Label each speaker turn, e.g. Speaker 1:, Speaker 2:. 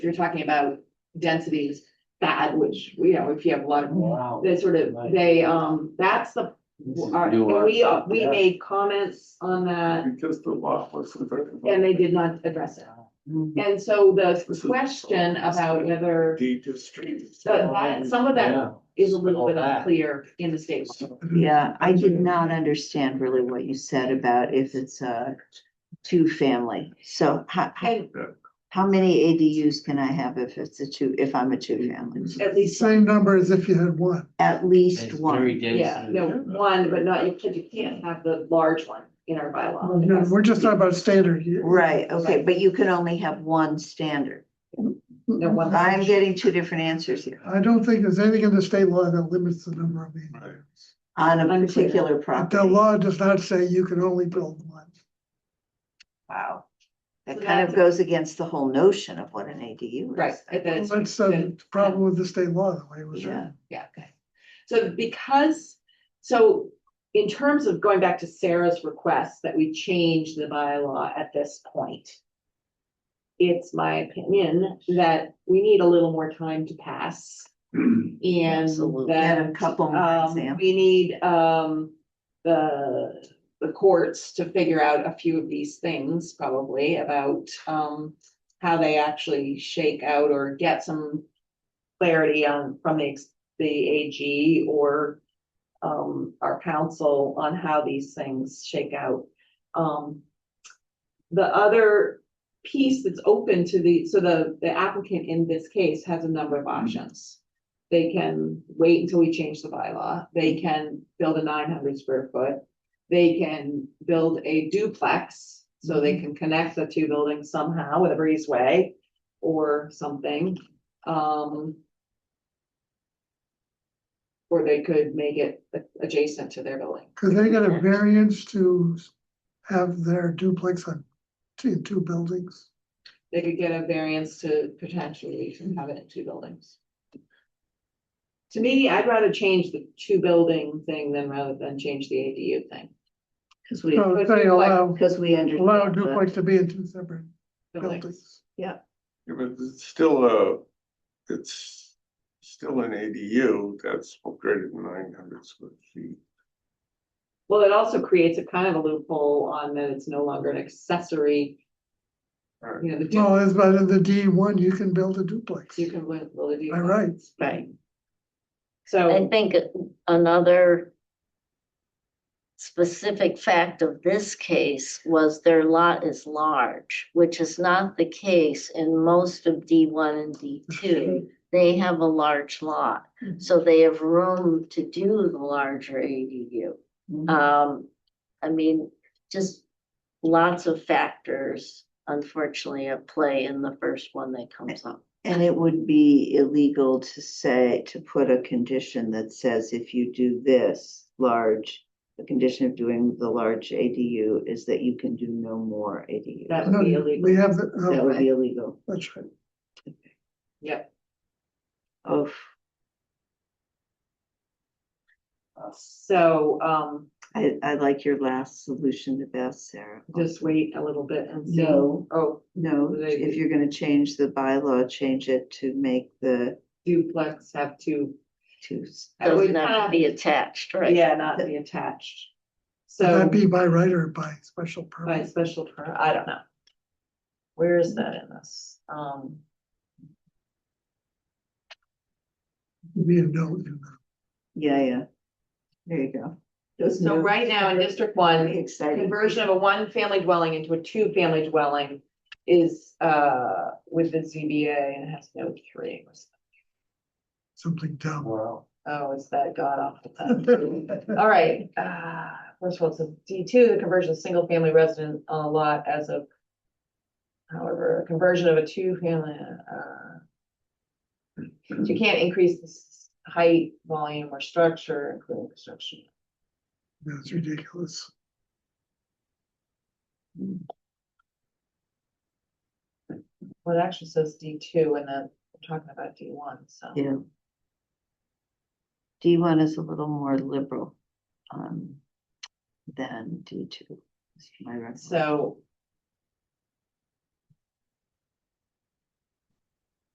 Speaker 1: you're talking about densities, that, which, you know, if you have a lot of,
Speaker 2: Wow.
Speaker 1: that sort of, they, um, that's the, our- and we, uh, we made comments on that,
Speaker 3: Because the lot was. converted.
Speaker 1: and they did not address it. And so the question about whether,
Speaker 3: Deed to streets.
Speaker 1: but that, some of that is a little bit unclear in the state. law.
Speaker 4: Yeah, I did not understand really what you said about if it's a two-family. So how, how,
Speaker 1: And
Speaker 4: how many ADUs can I have if it's a two, if I'm a two-family?
Speaker 1: at least,
Speaker 5: Same number as if you had one.
Speaker 4: At least one.
Speaker 1: yeah, no, one, but not, you can't, you can't have the large one in our bylaw.
Speaker 5: No, We're just talking about standard.
Speaker 4: Right, okay, but you can only have one standard.
Speaker 1: No one.
Speaker 4: I'm getting two different answers here
Speaker 5: I don't think there's anything in the state law that limits the number of ADUs.
Speaker 4: on a
Speaker 1: Unclear.
Speaker 4: particular
Speaker 5: The
Speaker 4: property.
Speaker 5: law does not say you can only build one.
Speaker 4: Wow. That
Speaker 1: So
Speaker 4: kind
Speaker 1: that's-
Speaker 4: of goes against the whole notion of what an ADU is.
Speaker 1: Right, that it's-
Speaker 5: That's the problem with the state law, the way it was
Speaker 4: Yeah,
Speaker 5: written.
Speaker 1: Yeah, okay. So because, so in terms of going back to Sarah's request that we change the bylaw at this point. It's my opinion that we need a little more time to pass and
Speaker 4: absolutely. And a
Speaker 1: that
Speaker 4: couple more
Speaker 1: um,
Speaker 4: examples.
Speaker 1: we need um the the courts to figure out a few of these things probably about um how they actually shake out or get some clarity on from the ex- the AG or um our council on how these things shake out. Um the other piece that's open to the, so the the applicant in this case has a number of options. They can wait until we change the bylaw. They can build a nine hundred square foot. They can build a duplex, so they can connect the two buildings somehow with a breezeway or something. Um. Or they could make it a- adjacent to their building.
Speaker 5: Could they get a variance to have their duplex on two, two buildings?
Speaker 1: They could get a variance to potentially have it in two buildings. To me, I'd rather change the two building thing than rather than change the ADU thing.
Speaker 4: Because we,
Speaker 5: So if they allow,
Speaker 4: because we understand.
Speaker 5: allow
Speaker 4: the-
Speaker 5: duplex to be in two separate
Speaker 1: Buildings.
Speaker 5: buildings.
Speaker 3: Yeah, But it's still a, it's still an ADU that's greater than nine hundred square feet.
Speaker 1: Well, it also creates a kind of a loophole on that it's no longer an accessory.
Speaker 3: Right.
Speaker 1: You know, the
Speaker 5: No,
Speaker 1: duplex,
Speaker 5: it's about in the D one, you can build a duplex.
Speaker 1: you can build build a
Speaker 5: By
Speaker 1: duplex.
Speaker 5: right.
Speaker 1: Right.
Speaker 6: I
Speaker 1: So,
Speaker 6: think another specific fact of this case was their lot is large, which is not the case in most of D one and D two. They have a large lot, so they have room to do the larger ADU. Um, I mean, just lots of factors unfortunately at play in the first one that comes up.
Speaker 4: And it would be illegal to say, to put a condition that says if you do this large, the condition of doing the large ADU is that you can do no more ADU.
Speaker 1: That
Speaker 4: That
Speaker 1: would
Speaker 5: No,
Speaker 1: be illegal.
Speaker 5: We have the, oh,
Speaker 4: would be illegal.
Speaker 5: that's right.
Speaker 1: yep.
Speaker 4: Oh,
Speaker 1: So, um,
Speaker 4: I, I like your last solution the best, Sarah.
Speaker 1: just wait a little bit and see.
Speaker 4: No.
Speaker 1: Oh,
Speaker 4: No, if you're gonna change the bylaw, change it to make the
Speaker 1: duplex have two,
Speaker 4: two.
Speaker 1: I would
Speaker 6: Doesn't have
Speaker 1: kinda-
Speaker 6: to be attached, right?
Speaker 1: yeah, not be attached.
Speaker 5: Would
Speaker 1: So
Speaker 5: that be by right or by special
Speaker 1: by
Speaker 5: permit?
Speaker 1: special permit, I don't know. Where is that in this? Um,
Speaker 5: Be a no in that.
Speaker 4: Yeah, yeah. There you go. Those
Speaker 1: so
Speaker 4: new-
Speaker 1: right now in District One,
Speaker 4: Exciting.
Speaker 1: Conversion of a one-family dwelling into a two-family dwelling is, uh, with the ZBA and has no three.
Speaker 5: something dumb.
Speaker 2: Wow.
Speaker 1: Oh, is that god awful? All right, uh, first of all, so D two, the conversion of single-family resident on a lot as of. However, a conversion of a two-family, uh. so You can't increase the s- height, volume, or structure, including construction.
Speaker 5: That's ridiculous.
Speaker 1: Well, it actually says D two and then we're talking about D one, so.
Speaker 4: Yeah. D one is a little more liberal, um, than D two.
Speaker 1: So